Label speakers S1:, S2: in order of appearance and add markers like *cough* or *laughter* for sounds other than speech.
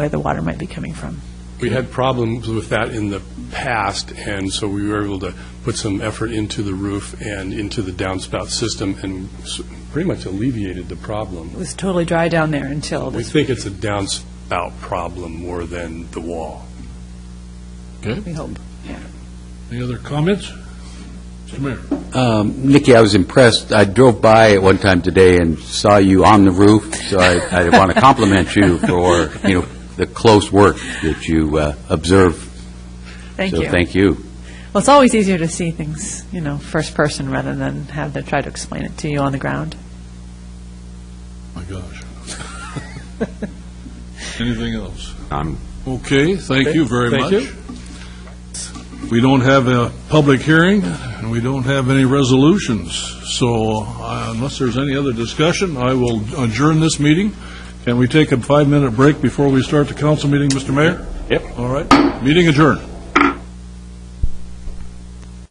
S1: where the water might be coming from.
S2: We had problems with that in the past, and so we were able to put some effort into the roof and into the downspout system, and s- pretty much alleviated the
S1: It
S2: problem.
S1: was totally dry down there until
S2: We
S1: this,
S2: think it's a downspout problem more than the wall.
S1: we hope.
S3: Any other comments? Mr. Mayor?
S4: Um, Nikki, I was impressed. I drove by at one time today and saw you on the roof, so I, I want to compliment you for, you know, the close work that you uh, observe.
S1: Thank you.
S4: So thank you.
S1: Well, it's always easier to see things, you know, first person rather than have to try to explain it to you on the ground.
S3: My gosh. *laughs* Anything else?
S4: I'm
S3: Okay, thank you very
S2: Thank
S3: much.
S2: you.
S3: We don't have a public hearing, and we don't have any resolutions, so uh, unless there's any other discussion, I will adjourn this meeting. Can we take a five-minute break before we start the council meeting, Mr. Mayor?
S2: Yep.
S3: All right, meeting adjourned.